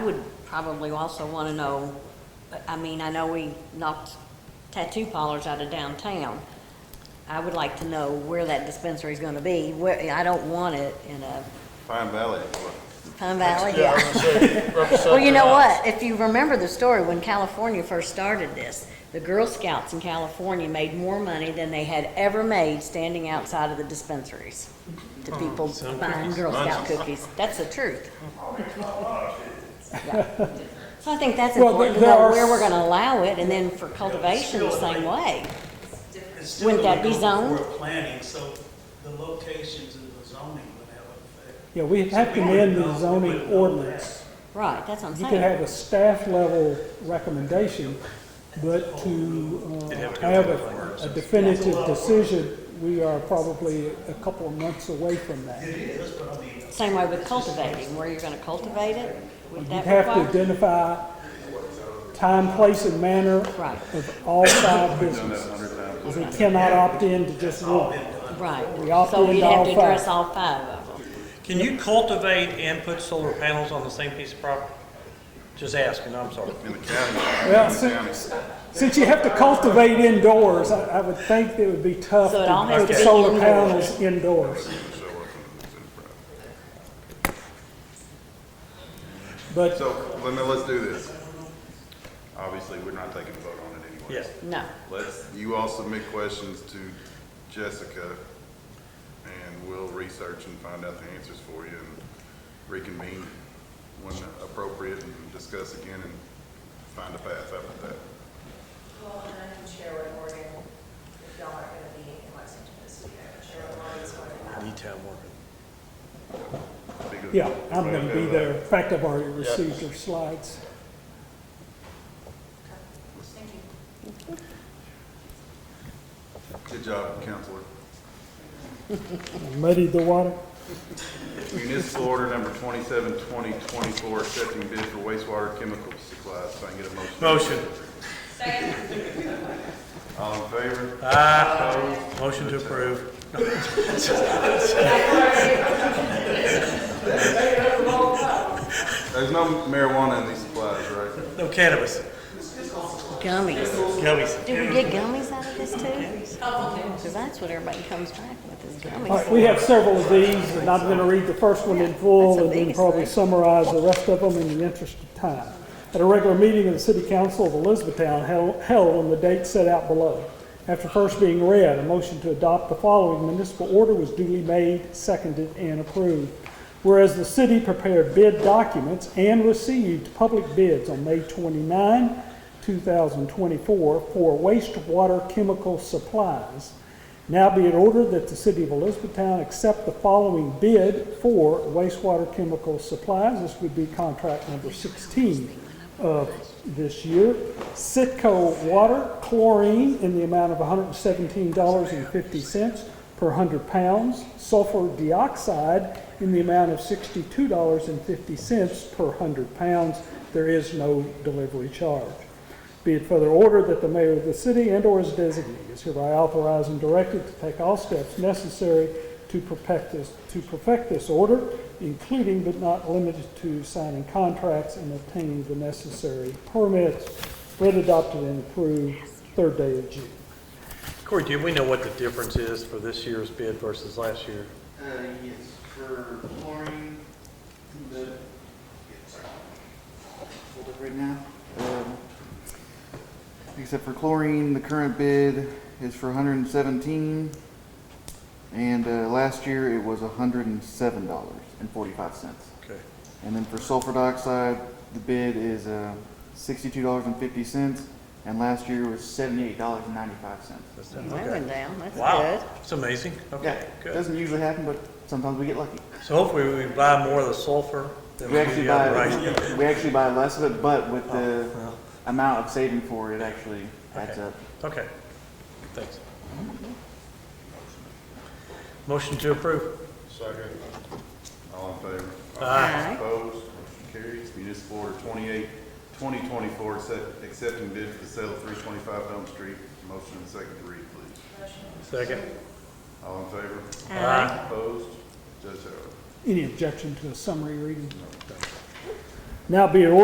probably also want to know, I mean, I know we knocked tattoo parlors out of downtown. I would like to know where that dispensary is going to be. Where, I don't want it in a Pine Valley. Pine Valley, I was yeah. gonna say, represent Well, you their know house. what? If you remember the story, when California first started this, the Girl Scouts in California made more money than they had ever made standing outside of the dispensaries Oh, to people buying Girl Scout cookies. That's the truth. Yeah. So I think that's Well, important to there know are where we're s- gonna allow it, and then for cultivation, the same way. It's still Wouldn't that gonna be go zoned? before planning, so the locations and the zoning would have an effect. Yeah, we have to So we amend the wouldn't know- we zoning wouldn't know ordinance. Right, that's what I'm You could saying. have a staff level recommendation, but to uh, have a a definitive decision, we are probably a couple of months away from that. that. It is, but I mean, Same way with cultivating, where you're gonna cultivate it, would You'd that have to require? identify time, place, and manner Right. of all five businesses. We cannot opt in to just one. Right, We opt so in we'd to have all to five. address all five of them. Can you cultivate and put solar panels on the same piece of property? Just asking, I'm sorry. In the county. Well, in the county. since, since you have to cultivate indoors, I, I would think that it would be tough So it all has to to put be solar indoors. panels indoors. But uh, So, let me, let's do this. Obviously, we're not taking a vote on it anyway. Yes. No, Let's, you all submit questions to Jessica, and we'll research and find out the answers for you, and reconvene when appropriate, and discuss again, and find a path out of that. Well, and I can share what Morgan, if y'all aren't gonna be in Lexington this year, I can share what Morgan's going to have. Detail working. Because- yeah, I'm going to Everybody be okay there. with In fact, I've already received your slides. Thank you. that? Good job, counselor. Muddy the water. Municipal order number twenty-seven, twenty twenty-four, accepting bid for wastewater chemical supplies. Can I get a motion? Motion. All in favor? Ah, motion to approve. There's no marijuana in these supplies, right? No cannabis. gummies. Gummies. Do we get gummies out of this too? Because that's what everybody comes back with is All right, gummies. we have several of these, and I'm going to read the first one in full That's the and then biggest probably thing. summarize the rest of them in the interest of time. At a regular meeting of the City Council of Elizabethtown held held on the date set out below. After first being read, a motion to adopt the following municipal order was duly made, seconded, and approved. Whereas the city prepared bid documents and received public bids on May 29, 2024 for wastewater chemical supplies. Now be it ordered that the city of Elizabethtown accept the following bid for wastewater chemical supplies. This would be contract number 16 of this year. Sitco Water Chlorine in the amount of $117.50 per 100 pounds. Sulfur dioxide in the amount of $62.50 per 100 pounds. There is no delivery charge. Be it further ordered that the mayor of the city and/or his designee is hereby authorized and directed to take all steps necessary to perfect this, to perfect this order, including but not limited to signing contracts and obtaining the necessary permits. Read, adopted, and approved third day of June. Corey, do we know what the difference is for this year's bid versus last year? Uh, yes, for chlorine, the, sorry, hold it right now. Um, Except for chlorine, the current bid is for hundred and seventeen, and, uh, last year it was hundred and seven dollars and forty-five cents. Okay. And then for sulfur dioxide, the bid is, uh, sixty-two dollars and fifty cents, and last year was seventy-eight dollars and ninety-five cents. That's That done. went Okay. down, that's Wow, good. it's amazing. Yeah, Okay, good. doesn't usually happen, but sometimes we get lucky. So hopefully we buy more of the sulfur than We we actually do the other. right? Oh, buy, we actually buy less of it, but with the well. amount of saving for it, actually adds Okay. up. Okay, thanks. Motion to approve. Second. All in favor? Aye. Opposed, motion carries. Municipal order 28, 2024, accept- accepting bid for the sale of 325 Elm Street. Motion and second to read, please. Second. All in favor? Aye. Opposed? Judge Harold. Any objection to a summary reading? Now be it ordered